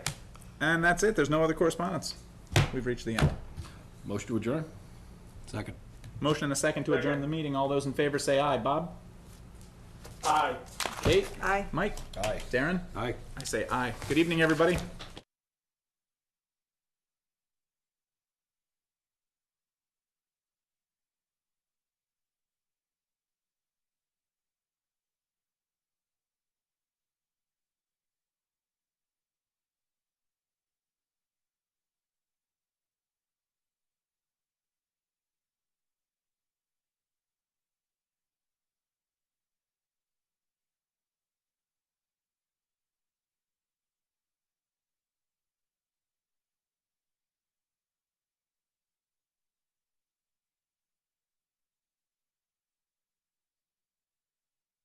And that's it. There's no other correspondence. We've reached the end. Motion to adjourn? Second. Motion and a second to adjourn the meeting. All those in favor say aye. Bob? Aye. Kate? Aye. Mike? Aye. Darren? Aye. I say aye. Good evening, everybody.